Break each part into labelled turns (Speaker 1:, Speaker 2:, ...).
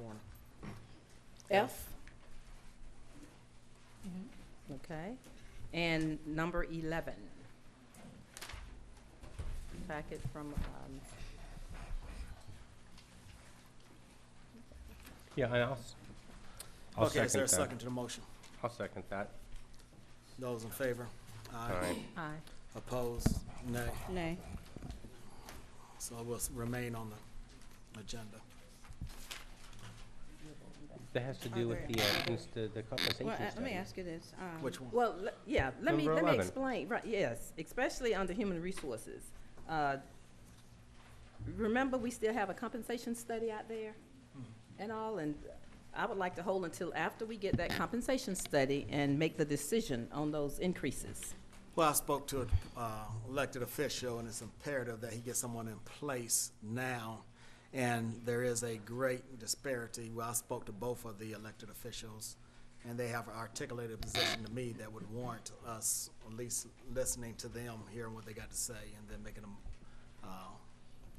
Speaker 1: morning.
Speaker 2: F? Mm-hmm. Okay. And number 11. Packet from, um,
Speaker 3: Yeah, and I'll, s- I'll
Speaker 1: Okay, is there a
Speaker 3: second
Speaker 1: second
Speaker 3: that.
Speaker 1: to the motion?
Speaker 3: I'll second that.
Speaker 1: Those in favor?
Speaker 3: All right.
Speaker 2: aye.
Speaker 1: Opposed? Nay.
Speaker 2: Nay.
Speaker 1: So it will s- remain on the agenda.
Speaker 3: That has to
Speaker 4: Are
Speaker 3: do with
Speaker 4: Oh, there-
Speaker 3: the, uh, cons- the the compensation
Speaker 4: Well,
Speaker 3: study.
Speaker 4: uh, let me ask you this. um,
Speaker 1: Which one?
Speaker 2: Well, le- yeah, let me,
Speaker 3: Number
Speaker 2: let me
Speaker 3: 11.
Speaker 2: explain, right, yes, especially under human resources. Uh, Remember, we still have a compensation study out there
Speaker 1: Hmm.
Speaker 2: and all, and I would like to hold until after we get that compensation study and make the decision on those increases.
Speaker 1: Well, I spoke to an elected official, and it's imperative that he get someone in place now. And there is a great disparity. Well, I spoke to both of the elected officials, and they have articulated a position to me that would warrant us at least listening to them, hearing what they got to say, and then making a uh,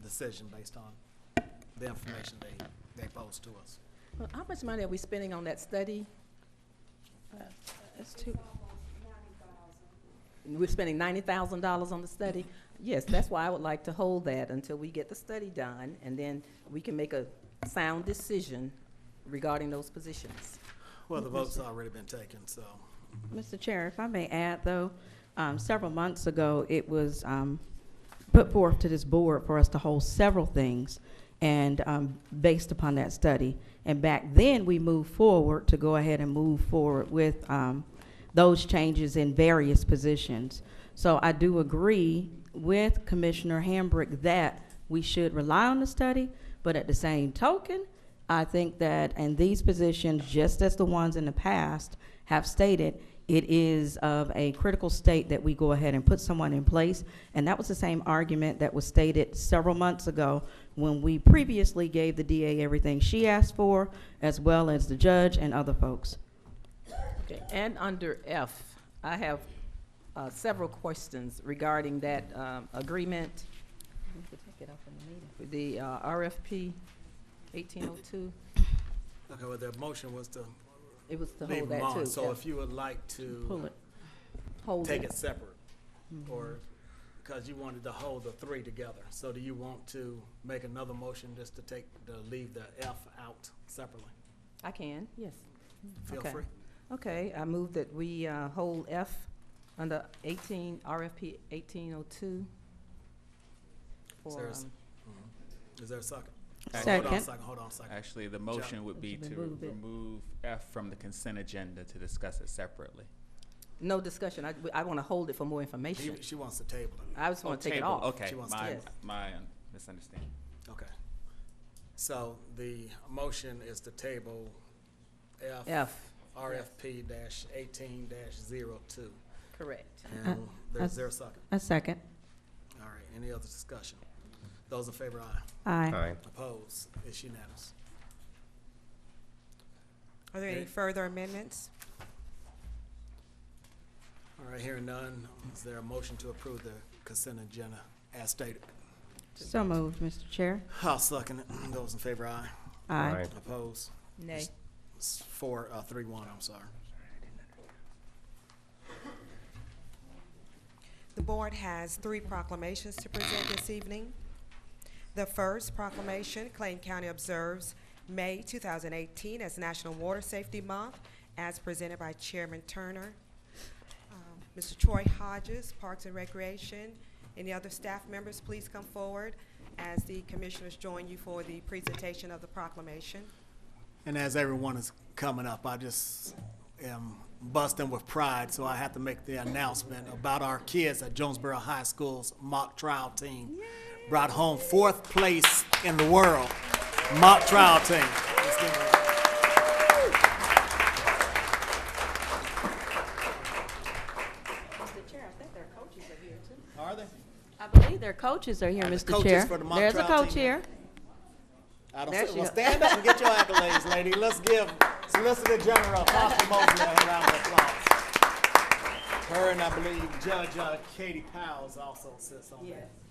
Speaker 1: decision based on the information they, they pose to us.
Speaker 2: Well, How much money are we spending on that study? Uh,
Speaker 4: It's two,
Speaker 2: We're spending ninety thousand dollars on the study? Yes, that's why I would like to hold that until we get the study done, and then we can make a sound decision regarding those positions.
Speaker 1: Well, the vote's already been taken, so.
Speaker 4: Mr. Chair, if I may add, though, um, several months ago, it was um, put forth to this board for us to hold several things and um, based upon that study. And back then, we moved forward to go ahead and move forward with um, those changes in various positions. So I do agree with Commissioner Hambrick that we should rely on the study, but at the same token, I think that in these positions, just as the ones in the past have stated, it is of a critical state that we go ahead and put someone in place. And that was the same argument that was stated several months ago when we previously gave the DA everything she asked for, as well as the judge and other folks.
Speaker 2: Okay, and under F, I have uh, several questions regarding that um, agreement, the uh, RFP eighteen oh two.
Speaker 1: Okay, well, the motion was to
Speaker 2: It was to
Speaker 1: leave
Speaker 2: hold
Speaker 1: them
Speaker 2: that too.
Speaker 1: on, so if you would like to.
Speaker 4: Pull it.
Speaker 2: Hold
Speaker 1: take
Speaker 2: it.
Speaker 1: it separate, or, because you wanted to hold the three together. So do you want to make another motion just to take, to leave the F out separately?
Speaker 2: I can, yes.
Speaker 1: Feel
Speaker 2: Okay.
Speaker 1: free.
Speaker 2: Okay, I move that we uh, hold F under 18, RFP 1802.
Speaker 1: Is
Speaker 2: for,
Speaker 1: there a s-
Speaker 2: um,
Speaker 1: Mhm. Is there a second? Hold on a
Speaker 4: Second.
Speaker 1: second, hold on a second.
Speaker 5: Actually, the motion would be
Speaker 4: Would you
Speaker 5: to
Speaker 4: remove it?
Speaker 5: remove F from the consent agenda to discuss it separately.
Speaker 2: No discussion, I, I want to hold it for more information.
Speaker 1: He- She wants to table it,
Speaker 2: I just want to take it
Speaker 5: Table,
Speaker 2: off.
Speaker 5: Okay,
Speaker 1: She wants to
Speaker 5: my,
Speaker 2: table it.
Speaker 5: my um, misunderstanding.
Speaker 1: okay. So the motion is to table F.
Speaker 2: F,
Speaker 1: RFP dash eighteen dash zero two.
Speaker 2: correct.
Speaker 1: And there's,
Speaker 4: I-
Speaker 1: there a second?
Speaker 4: A second.
Speaker 1: All right, any other discussion? Those in favor, aye.
Speaker 4: Aye.
Speaker 3: All right.
Speaker 1: Opposed, it's unanimous.
Speaker 4: Are there
Speaker 1: any
Speaker 4: further amendments?
Speaker 1: All right, hearing none, is there a motion to approve the consent agenda as stated?
Speaker 4: So moved, Mr. Chair.
Speaker 1: I'll second it. Those in favor, aye.
Speaker 4: Aye.
Speaker 3: Aye.
Speaker 1: Opposed?
Speaker 2: Nay.
Speaker 1: It's Four, uh, three, one, I'm sorry.
Speaker 6: The board has three proclamations to present this evening. The first proclamation, Clayton County observes May 2018 as National Water Safety Month, as presented by Chairman Turner. Um, Mr. Troy Hodges, Parks and Recreation, any other staff members, please come forward as the commissioners join you for the presentation of the proclamation.
Speaker 1: And as everyone is coming up, I just am busting with pride, so I have to make the announcement about our kids at Jonesboro High School's mock trial team. Brought home fourth place in the world, mock trial team. Let's give it up.
Speaker 4: Mr. Chair, I think their coaches are here, too.
Speaker 1: Are they?
Speaker 4: I believe their coaches are here,
Speaker 1: the
Speaker 4: Mr.
Speaker 1: coaches
Speaker 4: Chair.
Speaker 1: for the mock
Speaker 4: There's a
Speaker 1: trial
Speaker 4: coach
Speaker 1: team.
Speaker 4: here.
Speaker 1: I don't
Speaker 2: There
Speaker 1: see,
Speaker 2: she
Speaker 1: well,
Speaker 2: go.
Speaker 1: stand up and get your accolades, lady. Let's give Solicitor General Foster Mosley a round of applause. Her and I believe Judge uh, Katie Powell's also sits on that.